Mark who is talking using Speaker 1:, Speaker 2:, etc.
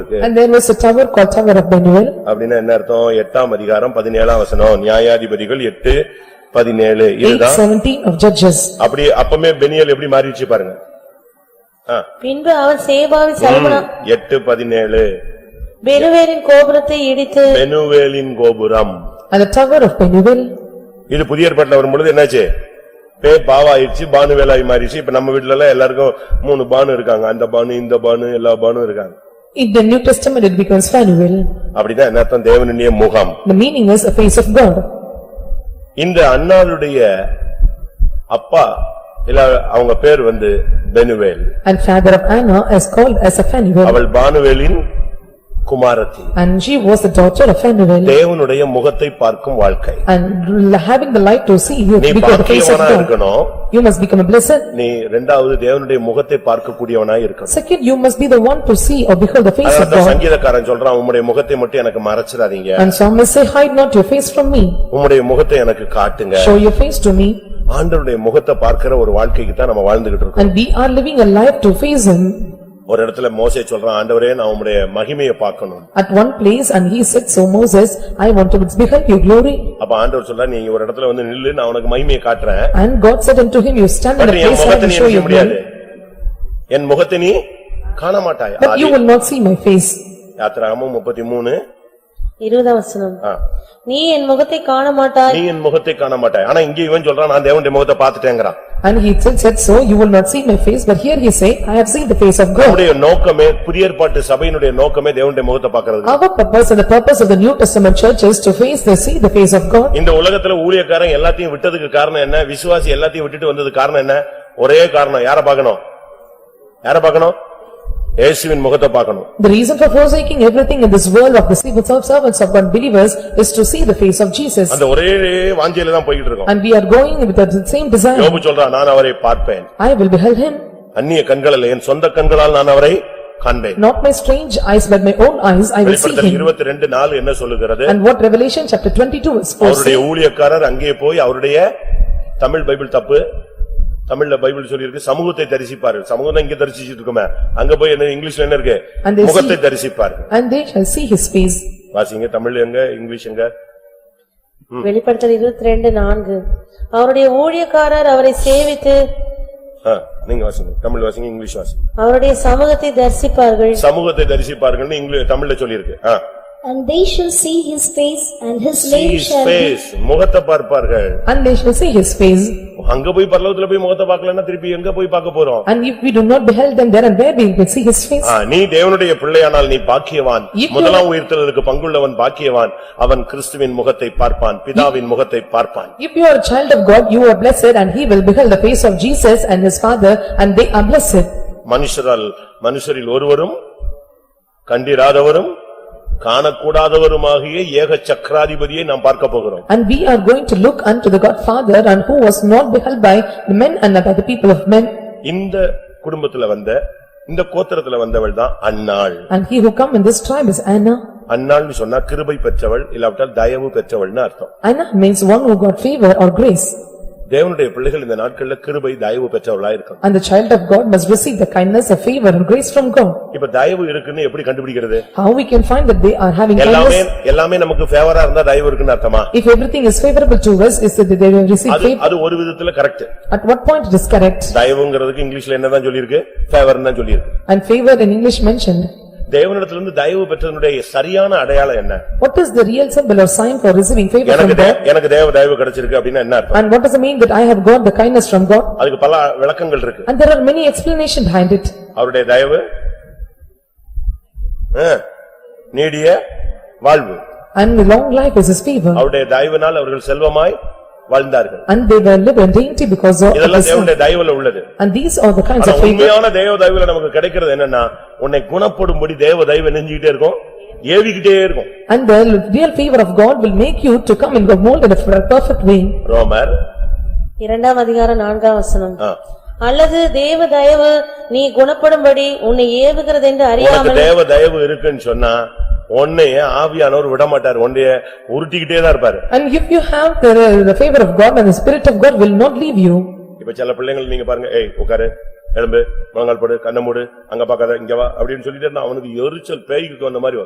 Speaker 1: And there was a tower called Tower of Benuel.
Speaker 2: அப்படின்னா என்ன அர்த்தம் எட்டாம் அதிகாரம் பதினேழாம் வசனம் நியாயாதிபதிகள் எட்டு பதினேழு
Speaker 1: Eight
Speaker 2: இதுதான்
Speaker 1: seventeen of Judges.
Speaker 2: அப்படி அப்பமே பெனியல் எப்படி மாறிடுச்சு பாருங்க ஆ,
Speaker 3: பின்பு அவன் சேபாவை சல்மனா
Speaker 2: எட்டு பதினேழு
Speaker 3: பெருவேரின் கோபுரத்தை இடித்து
Speaker 2: பெனுவேலின் கோபுரம்
Speaker 1: And the Tower of Benuel,
Speaker 2: இது புதிய ஏற்பாட்டுல வரும்பொழுது என்னாச்சு பே பாவாயிருச்சு பானுவேலாய் மாறிடுச்சு இப்ப நம்ம வீட்ல எல்லாம் எல்லாருக்கும் மூணு பானு இருக்காங்க அந்த பானு இந்த பானு எல்லா பானும் இருக்காங்க
Speaker 1: in the New Testament it becomes Fanuel.
Speaker 2: அப்படின்னா என்ன அர்த்தம் தேவனுடைய முகம்
Speaker 1: The meaning is a face of God.
Speaker 2: இந்த அண்ணாளுடைய அப்பா இல்ல அவங்க பேர் வந்து பெனுவேல்
Speaker 1: And father of Anna is called as a Fanuel.
Speaker 2: அவள் பானுவேலின் குமாரத்தி
Speaker 1: And she was the daughter of Fanuel.
Speaker 2: தேவனுடைய முகத்தை பார்க்கும் வாழ்க்கை
Speaker 1: And having the light to see, you
Speaker 2: நீ
Speaker 1: become the face of
Speaker 2: பாக்கியவனா
Speaker 1: God.
Speaker 2: இருக்கணும்
Speaker 1: You must become a blessed.
Speaker 2: நீ இரண்டாவது தேவனுடைய முகத்தை பார்க்கக்கூடியவனா இருக்கணும்
Speaker 1: Second, you must be the one to see or behold the face of
Speaker 2: அதான்
Speaker 1: God.
Speaker 2: சங்கீதக்காரன் சொல்றான் உம்முடைய முகத்தை மட்டும் எனக்கு மறைச்சிடாதீங்க
Speaker 1: And psalmist say, hide not your face from me,
Speaker 2: உம்முடைய முகத்தை எனக்கு காட்டுங்க
Speaker 1: show your face to me,
Speaker 2: ஆண்டவருடைய முகத்தை பார்க்கிற ஒரு வாழ்க்கைக்கு தான் நம்ம வாழ்ந்துகிட்டு இருக்கோம்
Speaker 1: and we are living a life to face him.
Speaker 2: ஒரு இடத்துல மோசே சொல்றான் ஆண்டவரே நான் உம்முடைய மகிமையை பார்க்கணும்
Speaker 1: At one place, and he said, so Moses, I want to behold your glory.
Speaker 2: அப்ப ஆண்டவர் சொல்றா நீ ஒரு இடத்துல வந்து நில்லு நான் உனக்கு மகிமையை காட்டுறேன்
Speaker 1: And God said unto him, you stand in
Speaker 2: but
Speaker 1: the
Speaker 2: என்
Speaker 1: place where
Speaker 2: முகத்தை
Speaker 1: I
Speaker 2: நீ
Speaker 1: show
Speaker 2: என்ன செய்ய
Speaker 1: your
Speaker 2: முடியாது
Speaker 1: glory,
Speaker 2: என் முகத்தை நீ காண மாட்டாய்
Speaker 1: but you will not see my face.
Speaker 2: யாத்திராகமும் முப்பத்தி மூணு
Speaker 3: இருபதாம் வசனம்
Speaker 2: ஆ.
Speaker 3: நீ என் முகத்தை காண மாட்டாய்
Speaker 2: நீ என் முகத்தை காண மாட்டாய் ஆனா இங்க இவன் சொல்றான் நான் தேவனுடைய முகத்தை பார்த்துட்டேங்கிறான்
Speaker 1: And he said, said, so you will not see my face, but here he say, I have seen the face of God.
Speaker 2: நம்முடைய நோக்கமே புதிய ஏற்பாட்டு சபையினுடைய நோக்கமே தேவனுடைய முகத்தை பார்க்கிறது
Speaker 1: Our purpose and the purpose of the New Testament church is to face the, see the face of God.
Speaker 2: இந்த உலகத்துல ஊழியக்காரன் எல்லாத்தையும் விட்டதுக்கு காரணம் என்ன விசுவாசி எல்லாத்தையும் விட்டுட்டு வந்தது காரணம் என்ன ஒரே காரணம் யார பார்க்கணும் யார பார்க்கணும் இயேசுவின் முகத்தை பார்க்கணும்
Speaker 1: The reason for forsaking everything in this world of the servants of God believers is to see the face of Jesus.
Speaker 2: அந்த ஒரே வாஞ்சையில தான் போய்கிட்டு இருக்கோம்
Speaker 1: And we are going with the same desire.
Speaker 2: யோபு சொல்றான் நான் அவரை பார்ப்பேன்
Speaker 1: I will behold him,
Speaker 2: அந்நிய கண்களில் என் சொந்த கண்களால் நான் அவரை காண்பேன்
Speaker 1: not my strange eyes, but my own eyes, I will see
Speaker 2: வெளிப்படுத்தல்
Speaker 1: him.
Speaker 2: இருபத்தி ரெண்டு நாள் என்ன சொல்லுகிறது
Speaker 1: And what Revelation chapter twenty-two is for
Speaker 2: அவருடைய ஊழியக்காரர் அங்கே போய் அவருடைய தமிழ் பைபிள் தப்பு தமிழ்ல பைபிள் சொல்லியிருக்கு சமூகத்தை தரிசிப்பார்கள் சமூகம் தான் இங்க தரிசிச்சிட்டு இருக்கோமே அங்க போய் என்ன இங்கிலீஷ்ல என்ன இருக்கு
Speaker 1: And they see-
Speaker 2: முகத்தை தரிசிப்பார்கள்
Speaker 1: and they shall see his face.
Speaker 2: வாசிங்க தமிழ் எங்க இங்கிலீஷ் எங்க
Speaker 3: வெளிப்படுத்தல் இருபத்தி ரெண்டு நான்கு அவருடைய ஊழியக்காரர் அவரை சேவித்து
Speaker 2: ஆ, நீங்க வாசிங்க தமிழ் வாசிங்க இங்கிலீஷ் வாசிங்க
Speaker 3: அவருடைய சமூகத்தை தரிசிப்பார்கள்
Speaker 2: சமூகத்தை தரிசிப்பார்கள்னு இங்கிலீஷ் தமிழ்ல சொல்லியிருக்கு ஆ.
Speaker 4: And they shall see his face, and his
Speaker 2: See
Speaker 4: name
Speaker 2: his
Speaker 4: shall be.
Speaker 2: face. முகத்தை பார்ப்பார்கள்
Speaker 1: And they shall see his face.
Speaker 2: அங்க போய் பரலோகத்துல போய் முகத்தை பார்க்கலன்னா திருப்பி எங்க போய் பார்க்க போறோம்
Speaker 1: And if we do not behold them there and there, we will see his face.
Speaker 2: ஆ, நீ தேவனுடைய பிள்ளையானால் நீ பாக்கியவான்
Speaker 1: If you-
Speaker 2: முதலாம் உயிர்த்தலுக்கு பங்குள்ளவன் பாக்கியவான் அவன் கிறிஸ்துவின் முகத்தை பார்ப்பான் பிதாவின் முகத்தை பார்ப்பான்
Speaker 1: If you are a child of God, you are blessed and he will behold the face of Jesus and his father and they are blessed.
Speaker 2: மனுஷரால் மனுஷரில் ஒருவரும் கண்டிராதவரும் காணக்கூடாதவருமாகிய ஏக சக்கராதிபதியை நாம் பார்க்க போகிறோம்
Speaker 1: And we are going to look unto the God Father and who was not beheld by the men and by the people of men.
Speaker 2: இந்த குடும்பத்துல வந்த இந்த கோத்திரத்துல வந்தவள் தான் அன்னாள்
Speaker 1: And he who come in this tribe is Anna.
Speaker 2: அன்னாள்னு சொன்னா கிருபை பெற்றவள் இல்லாவிட்டால் தயவு பெற்றவள்னு அர்த்தம்
Speaker 1: Anna means one who got favor or grace.
Speaker 2: தேவனுடைய பிள்ளைகள் இந்த நாட்கள்ல கிருபை தயவு பெற்றவளா இருக்கணும்
Speaker 1: And the child of God must receive the kindness of favor and grace from God.
Speaker 2: இப்ப தயவு இருக்குன்னு எப்படி கண்டுபிடிக்கிறது
Speaker 1: How we can find that they are having
Speaker 2: எல்லாமே,
Speaker 1: kindness?
Speaker 2: எல்லாமே நமக்கு ஃபேவரா இருந்தா தயவு இருக்குன்னு அர்த்தமா?
Speaker 1: If everything is favorable to us, is that they will receive
Speaker 2: அது,
Speaker 1: favor?
Speaker 2: அது ஒரு விதத்துல correct.
Speaker 1: At what point it is correct?
Speaker 2: தயவுங்கிறதுக்கு இங்கிலீஷ்ல என்னதான் சொல்லிருக்கு? ஃபேவர்னு தான் சொல்லிருக்கு.
Speaker 1: And favor in English mentioned.
Speaker 2: தேவனிடத்திலிருந்து தயவு பெற்றதனுடைய சரியான அடையாளம் என்ன?
Speaker 1: What is the real symbol or sign for receiving favor
Speaker 2: எனக்கு
Speaker 1: from God?
Speaker 2: தே- எனக்கு தேவ தயவு கிடைச்சிருக்கு அப்படின்னா என்ன அர்த்தம்?
Speaker 1: And what does it mean that I have got the kindness from God?
Speaker 2: அதுக்கு பல விளக்கங்கள் இருக்கு.
Speaker 1: And there are many explanations behind it.
Speaker 2: அவருடைய தயவு ஆ, நீடிய வாழ்வு.
Speaker 1: And the long life is his favor.
Speaker 2: அவருடைய தயவினால் அவர்கள் செல்வமாய் வாழ்ந்தார்கள்.
Speaker 1: And they were live and dainty because of
Speaker 2: இதெல்லாம்
Speaker 1: his
Speaker 2: தேவனுடைய தயவுல உள்ளது.
Speaker 1: And these are the kinds
Speaker 2: ஆனா
Speaker 1: of favor.
Speaker 2: உண்மையான தேவ தயவுல நமக்கு கிடைக்கிறது என்னன்னா உன்னை குணப்படும்படி தேவ தயவு நெஞ்சிக்கிட்டே இருக்கும் ஏவிக்கிட்டே இருக்கும்
Speaker 1: And the real favor of God will make you to come in the mold in a perfect way.
Speaker 2: ரோமர்
Speaker 3: இரண்டாம் அதிகாரம் நான்காம் வசனம்
Speaker 2: ஆ.
Speaker 3: அல்லது தேவ தயவு நீ குணப்படும்படி உன்னை ஏவுகிறதென்று
Speaker 2: உனக்கு
Speaker 3: அறியாமல்
Speaker 2: தேவ தயவு இருக்குன்னு சொன்னா உன்னைய ஆவியானவர் விடமாட்டார் உன்னைய உருட்டிக்கிட்டே தான் இருப்பாரு
Speaker 1: And if you have the the favor of God and the spirit of God will not leave you.
Speaker 2: இப்ப சில பிள்ளைங்கள் நீங்க பாருங்க ஏய் உட்காரு எழும்பு முழங்கால் போடு கண்ணை மூடு அங்க பாக்காத இங்க வா அப்படின்னு சொல்லிட்டு இருந்தா அவனுக்கு எரிச்சல் பேய்க்கு வந்த மாதிரி வரும்.